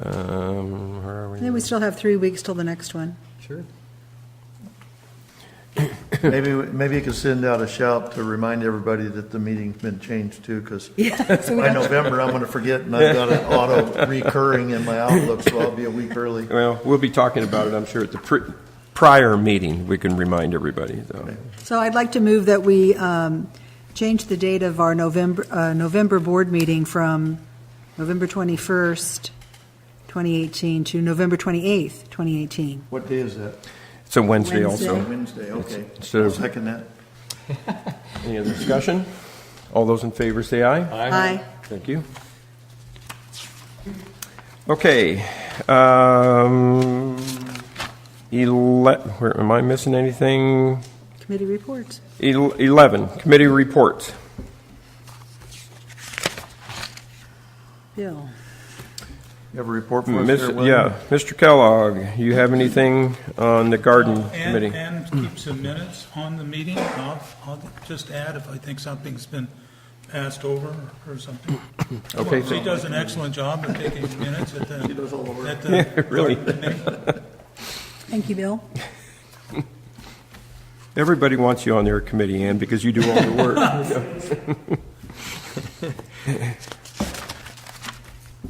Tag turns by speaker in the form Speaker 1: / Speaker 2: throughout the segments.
Speaker 1: Um,
Speaker 2: Then we still have three weeks till the next one.
Speaker 1: Sure.
Speaker 3: Maybe, maybe you could send out a shout to remind everybody that the meeting's been changed too, because by November, I'm going to forget, and I've got an auto recurring in my Outlook, so I'll be a week early.
Speaker 1: Well, we'll be talking about it, I'm sure, at the pri- prior meeting, we can remind everybody, though.
Speaker 2: So I'd like to move that we um, change the date of our November, uh, November board meeting from November 21st, 2018, to November 28th, 2018.
Speaker 3: What day is that?
Speaker 1: It's a Wednesday
Speaker 2: Wednesday.
Speaker 1: also.
Speaker 3: Wednesday, okay.
Speaker 1: Instead
Speaker 3: I'll
Speaker 1: of-
Speaker 3: second that.
Speaker 1: Any other discussion? All those in favor say aye.
Speaker 2: Aye.
Speaker 1: Thank you. Okay. um, Ele, where, am I missing anything?
Speaker 2: Committee reports.
Speaker 1: El- 11, committee reports.
Speaker 2: Bill,
Speaker 3: You have a report for us
Speaker 1: Miss-
Speaker 3: there, Will?
Speaker 1: Yeah, Mr. Kellogg, you have anything on the garden committee?
Speaker 4: Uh, Oh, And, and keep some minutes on the meeting. I'll, I'll just add if I think something's been passed over or something.
Speaker 1: Okay,
Speaker 4: She
Speaker 1: so-
Speaker 4: does an excellent job of taking minutes at the. She does all the work.
Speaker 1: Really?
Speaker 2: thank you, Bill.
Speaker 1: Everybody wants you on their committee, Ann, because you do all the work.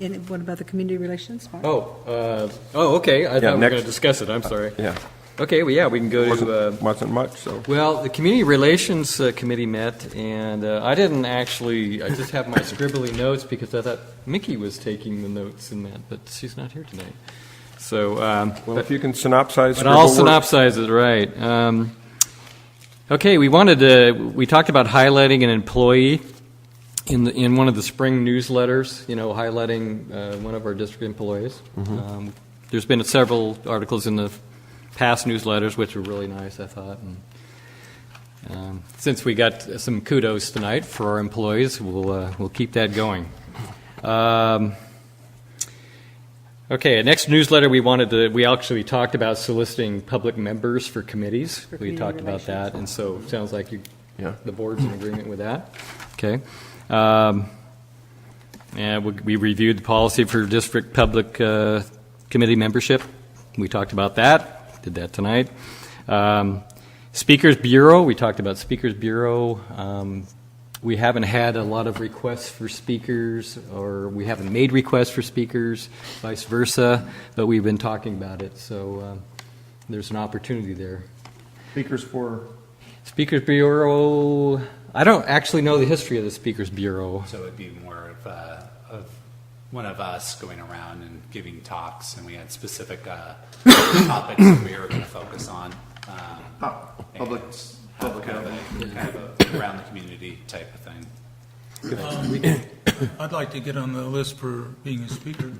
Speaker 2: And what about the community relations? Mark?
Speaker 5: Oh, uh, oh, okay. I thought we were
Speaker 1: next. Uh,
Speaker 5: going to discuss it. I'm sorry.
Speaker 1: Yeah,
Speaker 5: Okay, well, yeah, we can go to, uh,
Speaker 1: wasn't, wasn't much, so.
Speaker 5: well, the Community Relations uh, Committee met, and uh, I didn't actually, I just have my scribbly notes because I thought Mickey was taking the notes in that, but she's not here tonight. So, um,
Speaker 1: Well,
Speaker 5: but-
Speaker 1: if you can synopsize.
Speaker 5: But I'll
Speaker 1: scribble work-
Speaker 5: synopsize it right. Um, okay, we wanted to. We talked about highlighting an employee in the, in one of the spring newsletters. You know, highlighting uh, one of our district employees. Um, there's been several articles in the past newsletters, which were really nice, I thought. And, um, since we got some kudos tonight for our employees, we'll uh, we'll keep that going. Um, Okay, next newsletter, we wanted to, we actually talked about soliciting public members for committees. We
Speaker 2: community
Speaker 5: talked about that, and so it sounds like you,
Speaker 1: Yeah.
Speaker 5: the board's in agreement with that. Okay. Um, And we we reviewed the policy for district public uh, committee membership. We talked about that, did that tonight. Um, Speakers Bureau, we talked about Speakers Bureau. Um, We haven't had a lot of requests for speakers, or we haven't made requests for speakers, vice versa, but we've been talking about it, so um, there's an opportunity there.
Speaker 3: Speakers for,
Speaker 5: Speakers Bureau, I don't actually know the history of the Speakers Bureau.
Speaker 6: So it'd be more of, uh, of one of us going around and giving talks, and we had specific, uh, topics that we were gonna focus on. um,
Speaker 3: public-
Speaker 6: and have
Speaker 3: public
Speaker 6: Kind of a, kind of a around the community type of thing.
Speaker 4: I'd like to get on the list for being a speaker.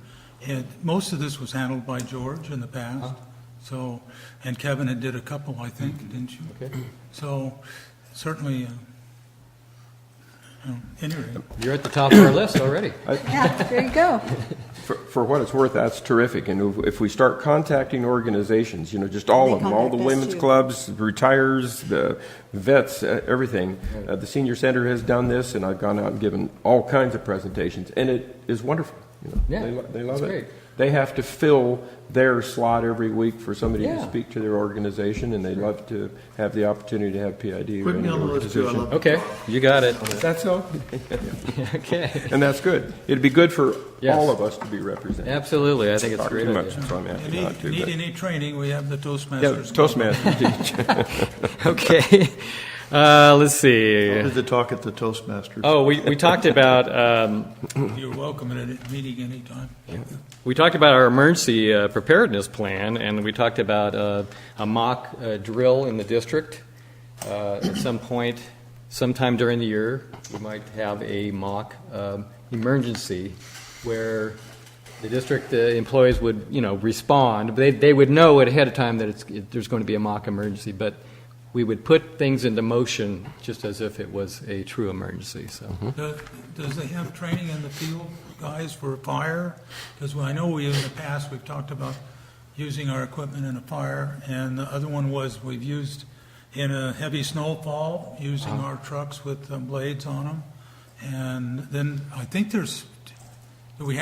Speaker 4: And most of this was handled by George in the past, so, and Kevin had did a couple, I think, didn't you? Mm-hmm. Okay. So certainly, uh, you know, anyway.
Speaker 5: You're at the top of our list already.
Speaker 2: Yeah, there you go.
Speaker 1: For, for what it's worth, that's terrific. And if- if we start contacting organizations, you know, just all of them, all the
Speaker 2: Contact us
Speaker 1: women's
Speaker 2: too.
Speaker 1: clubs, retires, the vets, uh, everything. Uh, The senior center has done this, and I've gone out and given all kinds of presentations, and it is wonderful. you know.
Speaker 5: Yeah,
Speaker 1: They lo- They love
Speaker 5: it's
Speaker 1: it.
Speaker 5: great.
Speaker 1: They have to fill their slot every week for somebody to
Speaker 5: Yeah.
Speaker 1: speak to their organization, and they love to have the opportunity to have PID.
Speaker 3: put me
Speaker 1: run
Speaker 3: on the
Speaker 1: their
Speaker 3: list too, I
Speaker 1: organization.
Speaker 3: love
Speaker 5: Okay, you got it.
Speaker 1: That's all.
Speaker 5: Okay.
Speaker 1: And that's good. It'd be good for
Speaker 5: Yes.
Speaker 1: all of us to be represented.
Speaker 5: Absolutely, I think it's a
Speaker 1: Talk
Speaker 5: great
Speaker 1: too much,
Speaker 5: idea.
Speaker 1: so I'm
Speaker 4: If
Speaker 1: happy
Speaker 4: you
Speaker 1: not
Speaker 4: need,
Speaker 1: to,
Speaker 4: need
Speaker 1: but-
Speaker 4: any training, we have the Toastmasters.
Speaker 1: Yeah,
Speaker 4: Club.
Speaker 1: Toastmasters.
Speaker 5: Okay, uh, let's
Speaker 3: Who
Speaker 5: see.
Speaker 3: did the talk at the Toastmasters?
Speaker 5: Oh, we, we talked about, um,
Speaker 4: You're welcome at a meeting anytime.
Speaker 5: we talked about our emergency uh, preparedness plan, and we talked about uh, a mock uh, drill in the district. Uh, At some point, sometime during the year, we might have a mock um, emergency where the district uh, employees would, you know, respond. They, they would know ahead of time that it's, it- there's going to be a mock emergency, but we would put things into motion just as if it was a true emergency, so.
Speaker 4: Does does they have training in the field, guys, for fire? Because I know we, in the past, we've talked about using our equipment in a fire, and the other one was we've used, in a heavy uh, snowfall, using our trucks with um, blades on them. And then I think there's